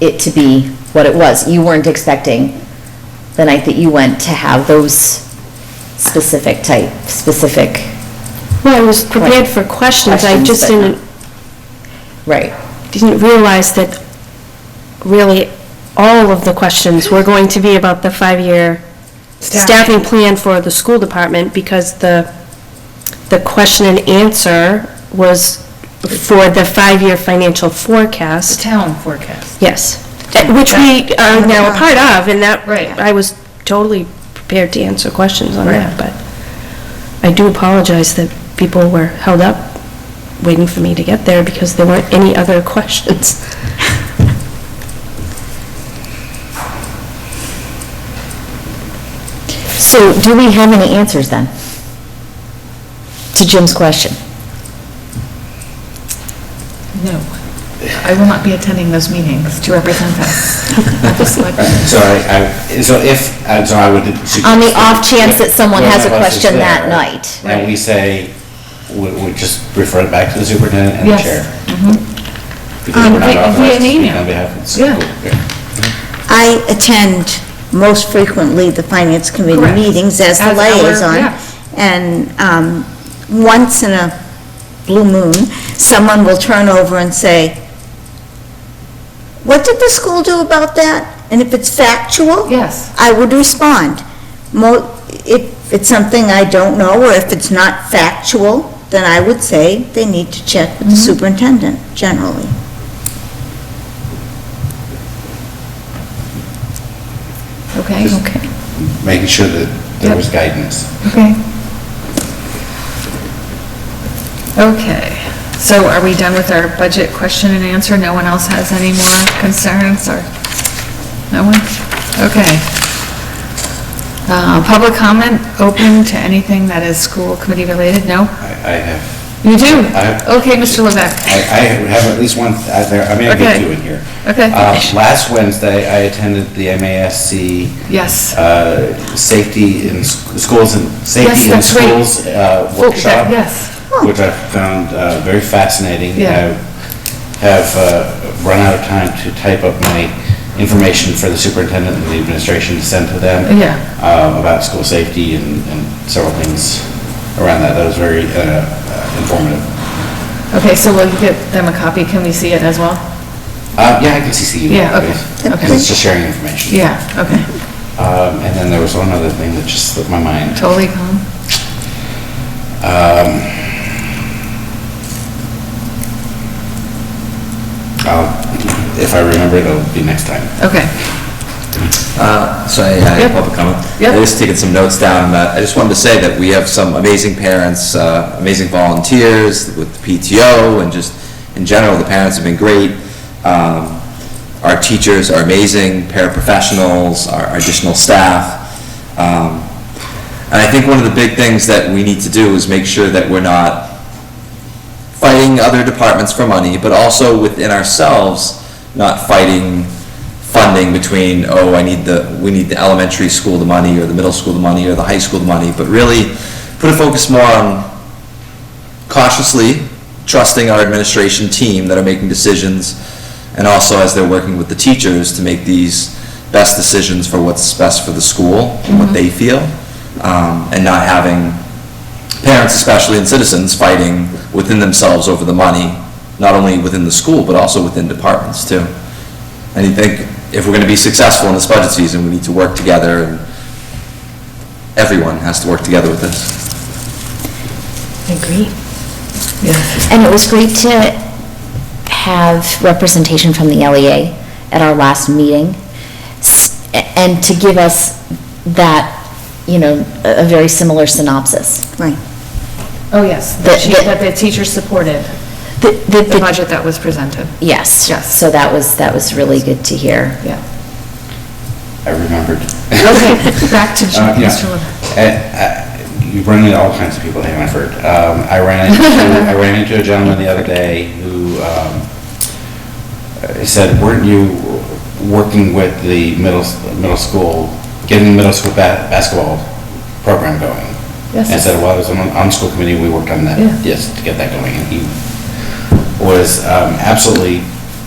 it to be what it was. You weren't expecting the night that you went to have those specific type, specific, Well, I was prepared for questions, I Questions, just but didn't, right. didn't realize that really all of the questions were going to be about the five-year staffing plan for the school department because the, the question and answer was for the five-year financial The forecast. town forecast. Yes, That- which we are now a part of, and that, Right. I was totally prepared to answer questions on that, but I do apologize that people were held up waiting for me to get there because there weren't any other questions. So do we have any answers then? To Jim's question? No. I will not be attending those meetings to represent us. So I, I- so if, and so I would suggest. On the off chance that someone has a Whoever else is question that there, night. And we say, we, we just refer it back to the superintendent and the Yes. chair. Because Um, we're not via- via authorized to speak email. On behalf of the Yeah. school. Yeah. I attend most frequently the finance committee Correct. meetings as the As our- liaison. yeah. And um, once in a blue moon, someone will turn over and say, what did the school do about that? And if it's factual, Yes. I would respond. Mo, if it's something I don't know, or if it's not factual, then I would say they need to check with the Mm-hmm. superintendent generally. Okay, Just- okay, Making sure that there was guidance. okay. Okay, so are we done with our budget question and answer? No one else has any more concerns or? No one? Okay. Uh, public comment open to anything that is school committee related? No? I, I have, You do? I- Okay, Mr. Levesque. I, I have at least one, uh, there, I may have Okay. two in here. Okay. Uh, last Wednesday, I attended the MASC. Yes. Uh, safety in s- schools and, Yes, safety in that's right. schools Oh, uh, workshop. Yes. which I found uh, very fascinating. Yeah. I have uh, run out of time to type up my information for the superintendent and the administration to send to them Yeah. uh, about school safety and and several things around that. That was very uh, informative. Okay, so will you get them a copy? Can we see it as well? Uh, Yeah, I can CC you. Yeah, okay, okay. Because it's just sharing information. Yeah, okay. Um, And then there was one other thing that just slipped my mind. Totally calm. I'll- Um, If I remember it, it'll be next time. Okay. Uh, So I I have Yep. a public comment. Yep. I just taken some notes down, but I just wanted to say that we have some amazing parents, uh, amazing volunteers with PTO, and just, in general, the parents have been great. Um, Our teachers are amazing, paraprofessionals, our additional staff. Um, And I think one of the big things that we need to do is make sure that we're not fighting other departments for money, but also within ourselves, not fighting funding between, oh, I need the, we need the elementary school the money, or the middle school the money, or the high school the money, but really put a focus more on cautiously trusting our administration team that are making decisions, and also as they're working with the teachers to make these best decisions for what's best for the school, and what they feel, um, and not having parents especially and citizens fighting within themselves over the money, not only within the school, but also within departments too. And you think, if we're gonna be successful in this budget season, we need to work together, and everyone has to work together with this. Agree. Yes. And it was great to have representation from the LEA at our last meeting, s- and to give us that, you know, a a very similar synopsis. Right. Oh, yes. The- That she- the- that the teacher supported The- the budget that was presented. Yes. Yes. So that was, that was really good to hear. Yeah. I remembered. Okay, back to Uh, yeah. Mr. Levesque. Uh, uh, You run into all kinds of people in Hanford. Um, I ran into, I ran into a gentleman the other day who um, uh, said, weren't you working with the middle, s- middle school, getting the middle school ba- basketball program going? Yes. And I said, well, I was on, on school committee, we worked on that, Yeah. yes, to get that going. And he was um, absolutely